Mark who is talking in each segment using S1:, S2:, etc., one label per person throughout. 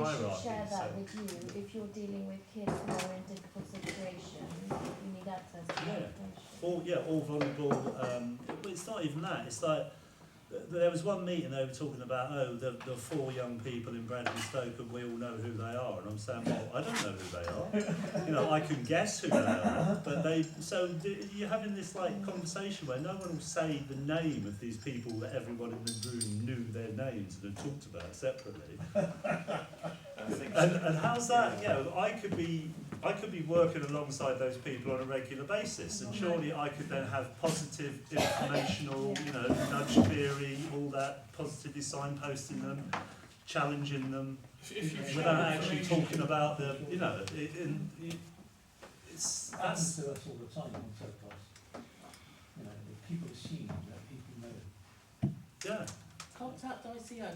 S1: copies,
S2: share that
S1: so-
S2: with you if you're dealing with kids who are in difficult situations, you need access to
S1: Yeah.
S2: education.
S1: all yeah, all vulnerable. Um, but it's not even that. It's like th- there was one meeting they were talking about. Oh, the, the four young people in Bradley Stoke, and we all know who they are. And I'm saying, well, I don't know who they are. You know, I can guess who they are, but they. So th- you're having this like conversation where no one will say the name of these people that everyone in the room knew their names and had talked about separately. And, and how's that? Yeah, I could be I could be working alongside those people on a regular basis, and surely I could then have positive informational, you know, nudge theory, all that positively signposting them, challenging them,
S3: If, if you share
S1: without actually
S3: information-
S1: talking about the, you know, it, in, it, it's
S4: happens
S1: that's
S4: to us all the time on surplus. You know, that people assume that people know.
S1: yeah.
S5: Contact ICO.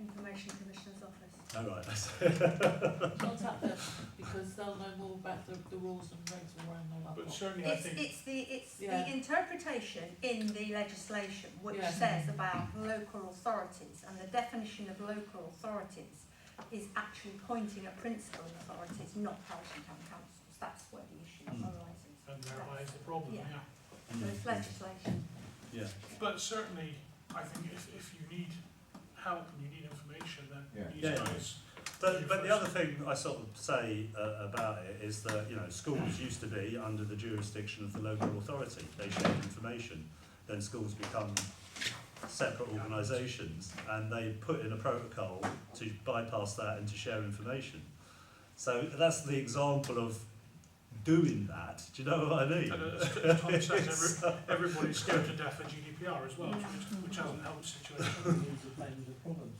S6: Information Commissioner's Office.
S1: All right. That's
S5: Contact them because they'll know more about the, the rules and regs around all that.
S3: But
S5: lot.
S3: certainly, I
S6: It's,
S3: think,
S6: it's the, it's
S5: Yeah.
S6: the interpretation in the legislation which
S5: Yeah.
S6: says about local authorities and the definition of local authorities is actually pointing at principal authorities, not parish and town councils. That's where the issue
S3: Hmm.
S1: Mm.
S6: arises.
S3: and there lies the problem,
S6: Yeah.
S3: yeah.
S6: So it's
S3: Hmm.
S6: legislation.
S1: Yeah.
S3: But certainly, I think if, if you need help and you need information, then
S7: Yeah.
S3: these
S1: Yeah.
S3: guys,
S1: But, but the other thing I sort of say uh, about it is that you know schools used to be under the jurisdiction of the local authority. They shared information. Then schools become separate organisations, and they put in a protocol to bypass that and to share information. So that's the example of doing that. Do you know what I mean?
S3: and uh, as Tom says, every, everybody's scared to death of GDPR as well, which, which hasn't helped the situation.
S4: These are the kinds of problems.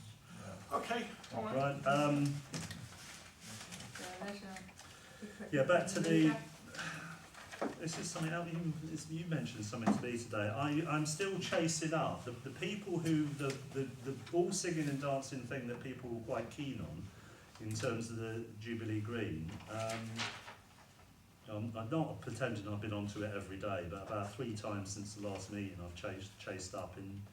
S3: Okay, all right.
S1: Right. Um,
S6: So leisure, equipment,
S1: Yeah, back to the-
S6: leisure.
S1: This is something else. You, it's- you mentioned something to me today. I, I'm still chasing up the, the people who the, the, the all singing and dancing thing that people were quite keen on in terms of the Jubilee Green. Um, I'm, I'm not pretending I've been onto it every day, but about three times since the last meeting, I've chased chased up in.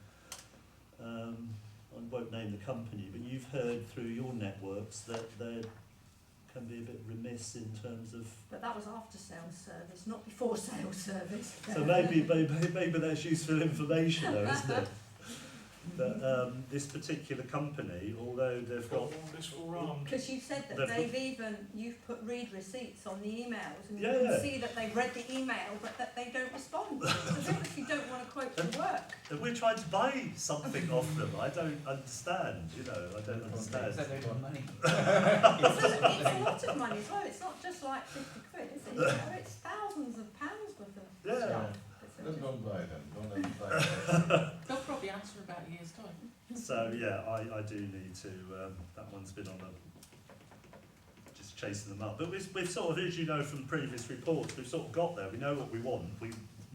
S1: Um, I won't name the company, but you've heard through your networks that they can be a bit remiss in terms of
S6: But that was after sales service, not before sales service.
S1: So maybe, maybe, maybe that's useful information though, isn't it? That um, this particular company, although they've
S3: We've got
S1: got,
S3: all this um, forearmed.
S6: Because you said that
S1: They've-
S6: they've even, you've put read receipts on the emails and you
S1: Yeah, yeah.
S6: can see that they've read the email but that they don't respond. Because obviously don't want to quote the work.
S1: that we're trying to buy something off them. I don't understand, you know, I don't understand.
S6: It's a, it's a lot of money as well, it's not just like fifty quid, is it? You know, It's thousands of pounds worth of
S1: Yeah.
S6: stuff.
S7: Let's
S6: It's a-
S7: not buy them, don't let them buy them.
S1: uh,
S5: They'll probably answer in about a year's time.
S1: So yeah, I, I do need to, um, that one's been on the, just chasing them up. But we've, we've sort of, as you know from previous reports, we've sort of got there. We know what we want. We,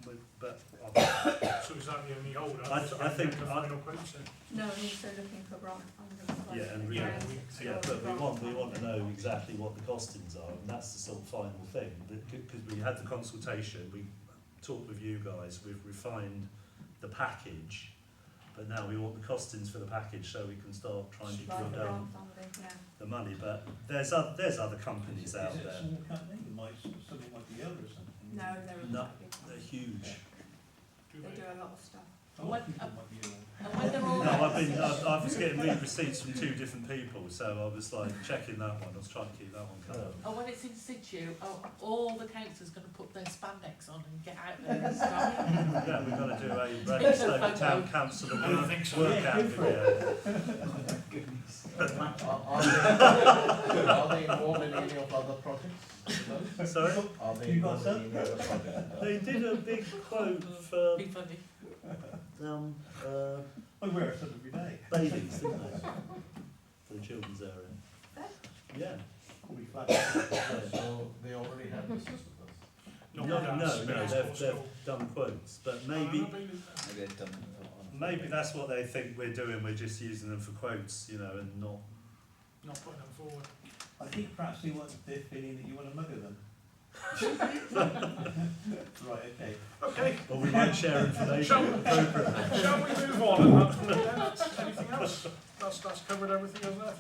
S1: we but um, I,
S3: So is that the only hold?
S1: I th- I think
S3: The
S1: I-
S3: final quotes then.
S6: No, and also looking for grant funding.
S1: Yeah, and we-
S3: Yeah, we-
S1: yeah, but we want, we want to know exactly what the costings are, and that's the sort of final thing, because we had the consultation, we talked with you guys, we've refined the package, but now we want the costings for the package so we can start trying to
S6: Right,
S1: drill
S6: for
S1: down
S6: grant funding, yeah.
S1: the money, but there's, oth- there's other companies
S4: Is
S1: out
S4: it a
S1: there,
S4: small company? You might, something like the other or something.
S6: No, they're
S1: No,
S6: a big
S1: they're
S6: one.
S1: huge.
S3: Do
S6: They
S3: they?
S6: do a lot of stuff.
S4: A lot of people might be aware.
S5: And when they're
S1: No,
S5: all
S1: I've
S5: out,
S1: been, I, I was getting read receipts from two different people, so I was like checking that one, I was trying to keep that one
S3: Oh.
S1: covered.
S5: and when it's in situ, oh, all the council's going to put their spandex on and get out there and start.
S1: Yeah, we've got to do a Redstone Town Council
S3: I don't
S1: work-
S3: think so.
S1: workout video.
S7: Are are they, are they involved in any of other projects?
S1: Sorry?
S7: Are they
S4: You got
S7: involved in any other projects?
S1: They did a big quote for
S5: Be funny.
S1: um, uh,
S4: I wear it every day.
S1: babies, didn't they? For the children's area. Yeah.
S4: Probably flat.
S7: So they already have this with us.
S1: No,
S3: Not
S1: no,
S3: that,
S1: no,
S3: but it's
S1: they've,
S3: possible.
S1: they've done quotes, but
S3: Uh,
S1: maybe,
S7: Maybe they've done it on-
S1: maybe that's what they think we're doing, we're just using them for quotes, you know, and not,
S3: Not putting them forward.
S4: I think perhaps they want the feeling that you want to mugger them. Right, okay.
S3: Okay,
S1: or we might share information
S3: Shall-
S1: appropriately.
S3: shall we move on? And that's- Anything else? That's, that's covered everything, hasn't it?